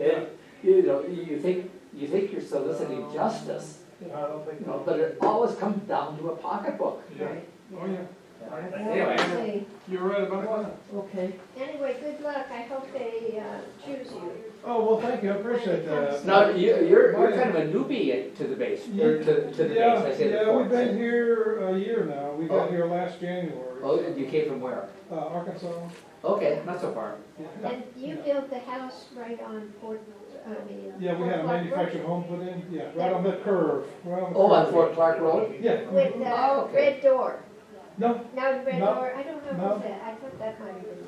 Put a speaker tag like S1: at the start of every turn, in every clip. S1: And, you know, you think, you think you're soliciting justice,
S2: I don't think.
S1: you know, but it always comes down to a pocketbook.
S2: Yeah,
S3: Right.
S2: oh, yeah,
S1: Anyway,
S3: Okay,
S2: you're right about that.
S3: Okay,
S4: Anyway, good luck. I hope they uh, choose you.
S2: Oh, well, thank you, I appreciate that.
S1: now, you, you're, you're kind of a newbie to the base, or to, to the base,
S2: Yeah,
S1: I say the
S2: Yeah, we've been
S1: courts.
S2: here a year now, we got
S1: Oh.
S2: here last January.
S1: Oh, you came from where?
S2: Uh, Arkansas.
S1: Okay, not so far.
S4: And you built the house right on Fort, I mean. uh,
S2: Yeah, we had a
S4: Fort Clark
S2: manufactured
S4: Road.
S2: home put in, yeah, right on the curve, right on the curve.
S1: Oh, on Fort Clark Road?
S2: Yeah.
S4: With
S1: Oh,
S4: the
S1: okay.
S4: red door.
S2: No.
S4: Now the red
S2: No.
S4: door, I don't know
S2: No.
S4: what's that. I thought that might have been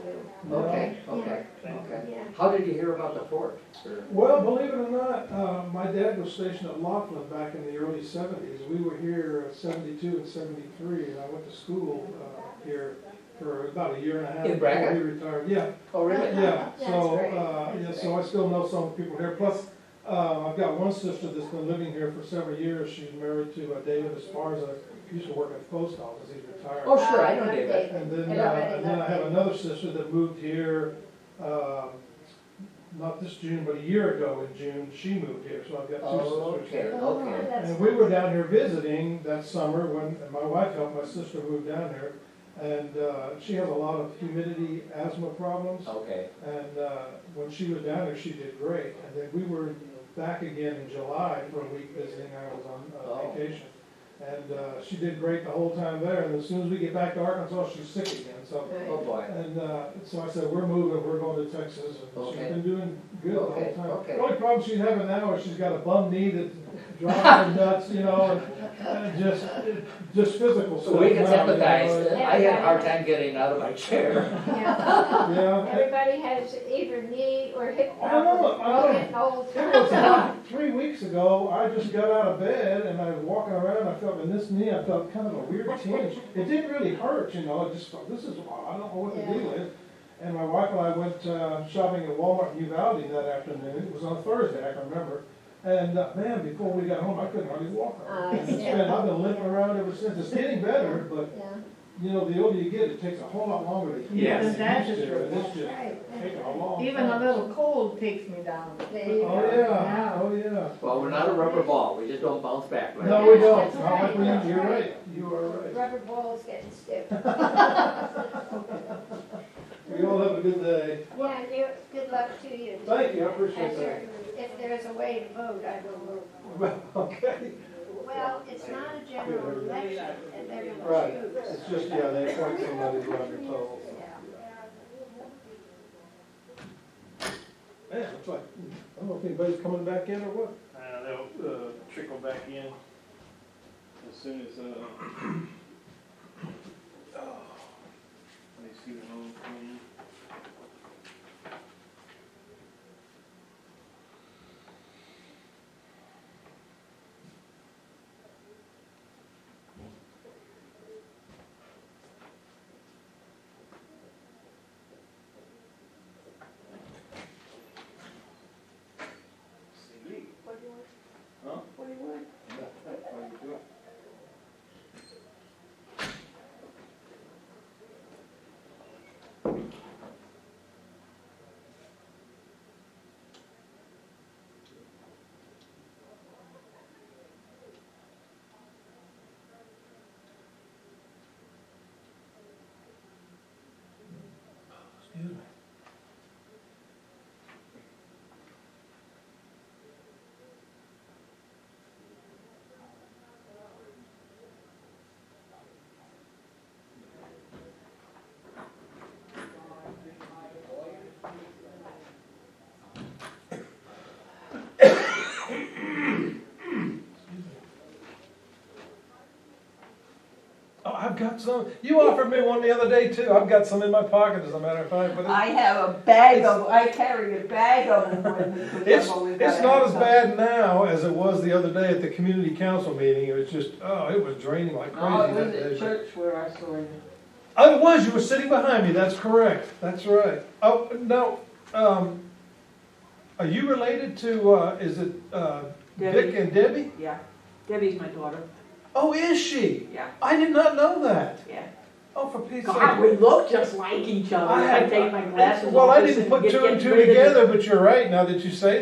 S4: you.
S1: Okay, okay, okay.
S4: Yeah.
S1: How did you hear about the fort? Or-
S2: Well, believe it or not, uh, my dad was stationed at Laughlin back in the early seventies. We were here at seventy-two and seventy-three, and I went to school, uh, here for about a year and a half.
S1: In Braga?
S2: Before he retired, yeah,
S1: Oh, really?
S2: yeah,
S4: That's
S2: so,
S4: great.
S2: uh, yeah, so I still know some people here. Plus, uh, I've got one sister that's been living here for several years. She's married to uh, David Esparza, He used to work at the post office, he's retired.
S1: Oh, sure, I know David.
S2: And then,
S4: And
S2: uh, and then I
S4: love
S2: have
S4: it.
S2: another sister that moved here, um, not this June, but a year ago in June, she moved here, so I've got
S1: Oh,
S2: two sisters
S1: okay,
S2: here.
S1: okay.
S4: That's-
S2: And we were down here visiting that summer when, and my wife helped my sister move down here. And, uh, she has a lot of humidity asthma problems,
S1: Okay,
S2: and, uh, when she was down there, she did great. And then we were back again in July for a week visiting, I was on
S1: Oh.
S2: uh, vacation. And, uh, she did great the whole time there, and as soon as we get back to Arkansas, she's sick again, so.
S1: oh boy.
S2: And uh, so I said, we're moving, we're going to Texas, and she's
S1: Okay.
S2: been doing good the
S1: Okay,
S2: whole time.
S1: okay.
S2: The only problem she's having now is she's got a bum knee that drives her nuts, you know, and- and just, just physical
S1: So
S2: stuff.
S1: we can
S2: now, you know,
S1: sympathize,
S2: and-
S1: I had a hard time getting out of my chair.
S4: Yeah.
S2: Yeah,
S4: Everybody has either knee or hip
S2: I know,
S4: problems.
S2: I know.
S4: We're getting old.
S2: it was about three weeks ago, I just got out of bed and I was walking around, I felt in this knee, I felt kind of a weird tinge. It didn't really hurt, you know, I just thought, this is, odd, I don't know what the
S4: Yeah.
S2: deal is. And my wife and I went uh, shopping at Walmart in Uvalde that afternoon, it was on Thursday, I can remember. And uh, man, before we got home, I couldn't hardly walk.
S4: Uh,
S2: It's
S4: yeah.
S2: been- I've been limping around ever since, it's getting better, but
S4: Yeah.
S2: you know, the older you get, it takes a whole lot longer to heal.
S1: Yes.
S2: than it
S3: That's
S2: used to,
S3: true.
S2: and It's just
S4: Right.
S2: taking a long
S3: even a
S2: time.
S3: little cold takes me down.
S4: There you
S2: Oh,
S4: go.
S2: yeah, oh, yeah.
S1: Well, we're not a rubber ball, we just don't bounce back, right?
S2: No, we don't.
S4: That's
S2: No,
S4: right.
S2: we-
S4: That's
S2: You're
S4: right.
S2: right. You are right.
S4: Rubber ball's getting stiff.
S2: We all have a good day.
S4: Yeah, you, good luck to you.
S2: Thank you, I appreciate
S4: And there-
S2: that.
S4: if there's a way to vote, I will vote.
S2: Well, Okay,
S4: Well, it's not a general election, and they're
S2: right.
S4: gonna choose.
S2: It's just, yeah, they appoint somebody who's on your toll.
S4: Yeah.
S2: Man, it's like, I don't know if anybody's coming back in or what.
S5: Uh, they'll, uh, trickle back in as soon as, uh, oh, let me see the home clean. See me. Huh? What do you want? What are you doing?
S2: Excuse me. Oh, I've got some, you offered me one the other day too. I've got some in my pocket as a matter of fact, but it's.
S6: I have a bag of, I carry a bag of them with me. 'cause
S2: It's,
S6: I've always
S2: it's
S6: gotta
S2: not
S6: have
S2: as
S6: some.
S2: bad now as it was the other day at the community council meeting, it was just, oh, it was draining like
S6: Oh, it
S2: crazy
S6: was
S2: that
S6: at
S2: day.
S6: church where I saw you.
S2: Oh, it was, you were sitting behind me, that's correct, that's right. Oh, now, um, are you related to, uh, is it, uh, Dick
S6: Debbie.
S2: and Debbie?
S6: Yeah. Debbie's my daughter.
S2: Oh, is she?
S6: Yeah,
S2: I did not know that.
S6: yeah.
S2: Oh, for Pete's sake.
S7: God, we look just like each other.
S2: I
S7: I
S2: had-
S7: take my glasses off.
S2: Well, I
S7: and
S2: didn't
S7: sit-
S2: put
S7: get-
S2: two and
S7: get
S2: two
S7: rid of it.
S2: together, but you're right, now that you say